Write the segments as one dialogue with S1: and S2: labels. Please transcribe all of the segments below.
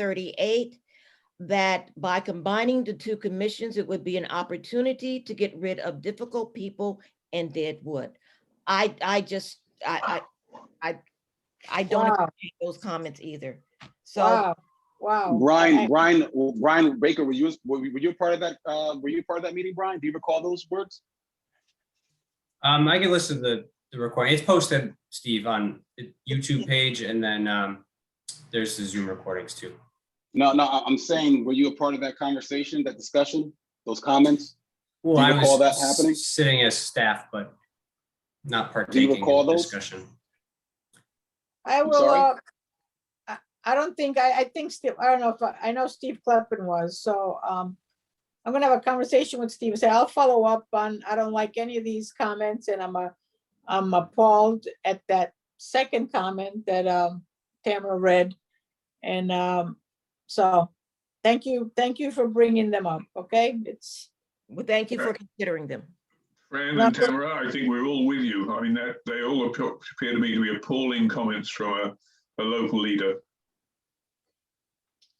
S1: 338, that by combining the two commissions, it would be an opportunity to get rid of difficult people and dead wood. I, I just, I, I, I, I don't
S2: Wow,
S1: appreciate those comments either. So
S2: wow, wow. I-
S3: Brian, Brian, Brian Baker, were you, were you were you part of that, uh, were you part of that meeting, Brian? Do you recall those words?
S4: Um, I can listen to the, the recording. It's posted, Steve, on the YouTube page and then, um, there's the Zoom recordings too.
S3: No, no, I- I'm saying, were you a part of that conversation, that discussion, those comments?
S4: Well,
S3: Do you
S4: I
S3: recall
S4: was
S3: that happening?
S4: Sitting as staff, but not partaking in
S3: recall
S4: the
S3: those?
S4: discussion.
S2: I
S3: I'm
S2: will,
S3: sorry?
S2: uh, I, I don't think, I, I think Steve, I don't know if, I I know Steve Kleppen was, so, um, I'm gonna have a conversation with Steve, and say, I'll follow up on, I don't like any of these comments, and I'm, uh, I'm appalled at that second comment that, um, Tamara read. And, um, so, thank you, thank you for bringing them up, okay? It's,
S1: well, thank you for considering them.
S5: Fran
S2: Not
S5: and
S2: that-
S5: Tamara, I think we're all with you. I mean, that, they all appear appear to me to be appalling comments from a, a local leader.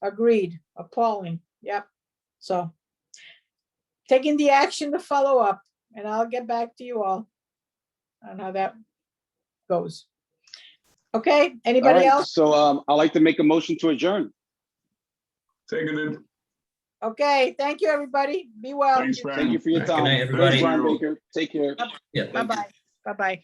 S2: Agreed, appalling, yep, so. Taking the action to follow up, and I'll get back to you all. On how that goes. Okay,
S3: All
S2: anybody
S3: right,
S2: else?
S3: so, um, I'd like to make a motion to adjourn.
S5: Seconded.
S2: Okay, thank you, everybody, be well,
S5: Thanks, Fran.
S3: Thank you for your
S4: Good
S3: time.
S4: night,
S3: Thanks,
S4: everybody.
S3: Brian Baker, take care.
S4: Yeah.
S2: bye-bye, bye-bye.